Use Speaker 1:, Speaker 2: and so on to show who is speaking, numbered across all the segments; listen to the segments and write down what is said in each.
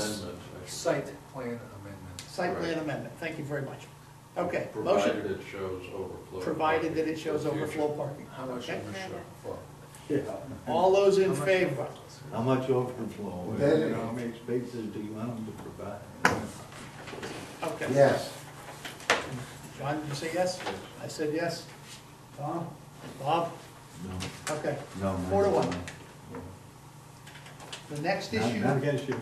Speaker 1: Amendment.
Speaker 2: Site plan amendment.
Speaker 3: Site plan
Speaker 1: Right.
Speaker 3: amendment, thank you very much. Okay, motion,
Speaker 1: Provided it shows overflow.
Speaker 3: provided that it shows
Speaker 1: parking for
Speaker 3: overflow
Speaker 1: future-
Speaker 3: parking.
Speaker 2: How much
Speaker 3: Okay.
Speaker 2: overflow? flow?
Speaker 4: Yeah,
Speaker 3: All those
Speaker 2: How
Speaker 3: in
Speaker 2: much
Speaker 3: favor?
Speaker 2: overflow?
Speaker 4: how much overflow,
Speaker 5: That
Speaker 4: you
Speaker 5: is-
Speaker 4: know, how many spaces do you want them to provide?
Speaker 3: Okay.
Speaker 5: Yes.
Speaker 3: John, did you say yes? I said yes. Tom? Bob?
Speaker 4: No,
Speaker 3: Okay.
Speaker 4: no.
Speaker 3: Four to
Speaker 4: no,
Speaker 3: one.
Speaker 4: no.
Speaker 3: The next
Speaker 4: Not,
Speaker 3: issue,
Speaker 4: not against you.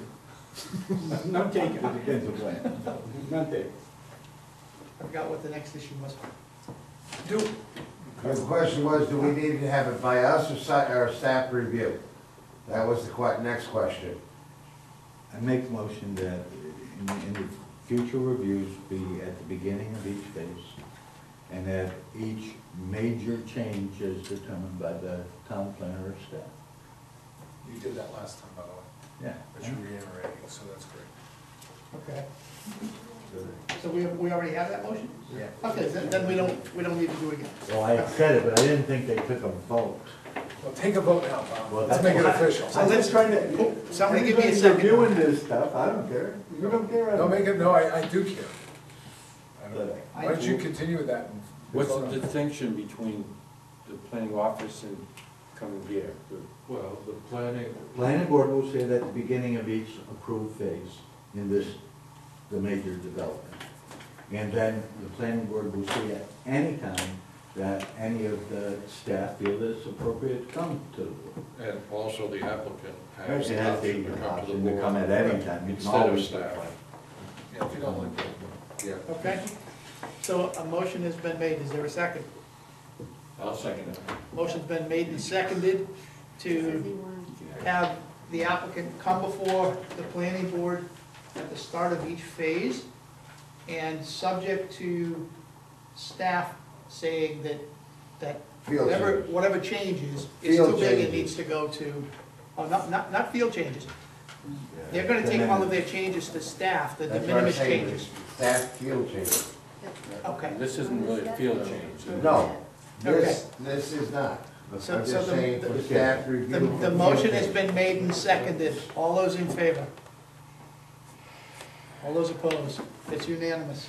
Speaker 4: Not taken. Against the plan. Not taken.
Speaker 3: I forgot what the next issue was.
Speaker 2: Do,
Speaker 5: The question was, do we need to have it by us or si- or staff review? That was the que, next question.
Speaker 4: I make motion that in, in the future reviews be at the beginning of each phase, and that each major change is determined by the town planner or staff.
Speaker 2: you did that last time, by the way,
Speaker 4: Yeah.
Speaker 2: but you're reiterating, so that's great.
Speaker 3: Okay. So we, we already have that motion?
Speaker 2: Yeah.
Speaker 3: Okay, then, then we don't, we don't need to do it again.
Speaker 4: Well, I said it, but I didn't think they took a vote.
Speaker 2: Well, take a vote now, Bob.
Speaker 4: Well,
Speaker 2: Let's make it official.
Speaker 4: I'm just trying to.
Speaker 3: Somebody give me a
Speaker 4: Everybody's
Speaker 3: second.
Speaker 4: Reviewing this stuff, I don't care. You don't care. I
Speaker 2: No, make it, no, I, I do care. I don't-
Speaker 4: But-
Speaker 2: Why don't you continue with that? and-
Speaker 6: What's the distinction between the planning office and coming here?
Speaker 1: Well, the planning,
Speaker 4: Planning board will say that at the beginning of each approved phase in this, the major development. And then the planning board will say at any time that any of the staff feel that it's appropriate to come to the board.
Speaker 1: and also the applicant has
Speaker 4: Actually,
Speaker 1: the
Speaker 4: that's
Speaker 1: option to
Speaker 4: the
Speaker 1: come to the
Speaker 4: option to
Speaker 1: board.
Speaker 4: come at any time. You can
Speaker 1: Instead of
Speaker 4: always
Speaker 1: staff. Yeah, if you don't like that. Yeah.
Speaker 3: Okay? So a motion has been made, is there a second?
Speaker 1: I'll second it.
Speaker 3: Motion's been made and seconded to have the applicant come before the planning board at the start of each phase, and subject to staff saying that, that
Speaker 5: Field
Speaker 3: whatever,
Speaker 5: changes.
Speaker 3: whatever changes is too
Speaker 5: Field
Speaker 3: big, it
Speaker 5: changes.
Speaker 3: needs to go to, oh, not, not, not field changes. They're
Speaker 4: The
Speaker 3: gonna take all of
Speaker 4: minute-
Speaker 3: their changes to staff, the de
Speaker 5: Uh, That's what I'm
Speaker 3: minimis
Speaker 5: saying, is
Speaker 3: changes.
Speaker 5: Staff field changes.
Speaker 3: Okay,
Speaker 6: This isn't really a field change.
Speaker 5: No, this, this is not.
Speaker 3: Mm-hmm. So-
Speaker 5: I'm
Speaker 3: so
Speaker 5: just
Speaker 3: the-
Speaker 5: saying,
Speaker 3: the-
Speaker 5: for staff review.
Speaker 3: the,
Speaker 5: for
Speaker 3: the
Speaker 5: field
Speaker 3: motion has
Speaker 5: changes.
Speaker 3: been made and seconded, all those in favor? All those opposed, it's unanimous,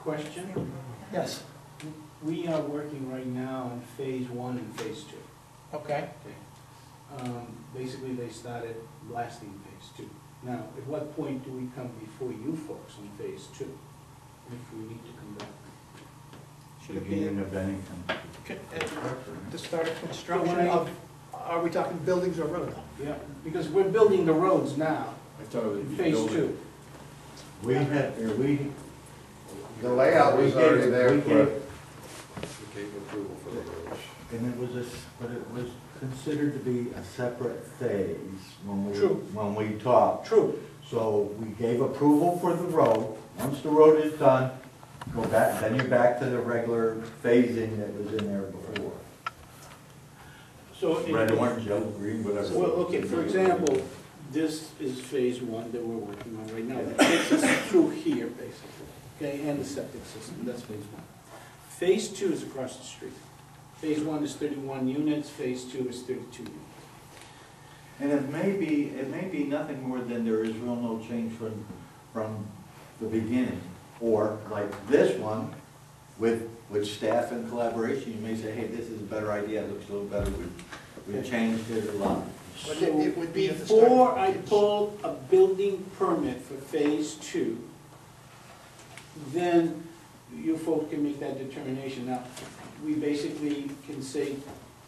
Speaker 7: Question,
Speaker 3: yes,
Speaker 7: we are working right now on phase one and phase two.
Speaker 3: okay,
Speaker 7: Um, Basically, they started blasting phase two. Now, at what point do we come before you folks on phase two? If we need to come back?
Speaker 4: Beginning of any time.
Speaker 3: Con- uh, the start of construction of, are we talking buildings or roads?
Speaker 7: Yeah, because we're building the roads now,
Speaker 6: I thought it
Speaker 7: in
Speaker 6: would be
Speaker 7: phase
Speaker 6: building.
Speaker 7: two.
Speaker 4: We had, or we.
Speaker 5: The layout
Speaker 4: we
Speaker 5: was
Speaker 4: gave-
Speaker 5: already there
Speaker 4: we
Speaker 5: for,
Speaker 4: gave-
Speaker 1: We gave approval for the roads.
Speaker 4: And it was a, s- but it was considered to be a separate phase when we,
Speaker 7: True.
Speaker 4: when we talked.
Speaker 7: True.
Speaker 4: So we gave approval for the road. Once the road is done, go back, then you're back to the regular phasing that was in there before.
Speaker 7: So. it-
Speaker 4: Red, orange, yellow, green, whatever.
Speaker 7: Well, okay, for example, this is phase one that we're working on right now, that takes us through here, basically, okay, and the septic system, that's phase one. Phase two is across the street. Phase one is thirty-one units, phase two is thirty-two units.
Speaker 4: And it may be, it may be nothing more than there is real no change from, from the beginning. Or like this one, with, with staff and collaboration, you may say, hey, this is a better idea, it looks a little better, we, we changed it a lot.
Speaker 3: But it- it would be at the start.
Speaker 7: Before I pull a building permit for phase two, then you folk can make that determination. Now, we basically can say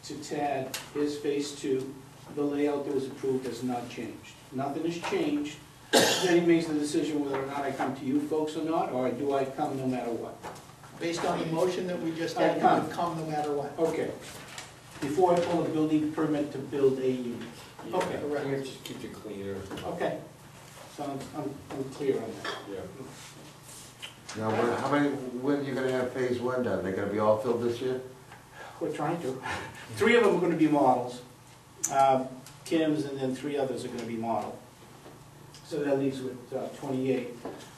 Speaker 7: to Tad, here's phase two, the layout that was approved has not changed. Nothing has changed, then he makes the decision whether or not I come to you folks or not, or do I come no matter what?
Speaker 3: Based on the motion that we just had, it would come no matter what.
Speaker 7: Okay. Before I pull a building permit to build a unit. Okay.
Speaker 3: Correct.
Speaker 6: Yeah, Just keep it cleaner,
Speaker 7: Okay, so I'm, I'm, I'm clear on that.
Speaker 6: yeah.
Speaker 5: Now, when- how many, when are you gonna have phase one done? They're gonna be all filled this year?
Speaker 7: We're trying to. Three of them are gonna be models, Um, Tim's, and then three others are gonna be model. So that leaves with uh, twenty-eight.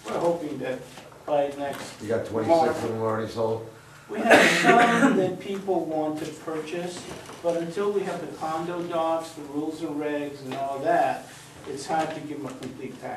Speaker 7: We're hoping that by next,
Speaker 5: You got twenty-six of them already sold?
Speaker 7: we have some that people want to purchase, but until we have the condo docs, the rules and regs and all that, it's hard to give them a complete package.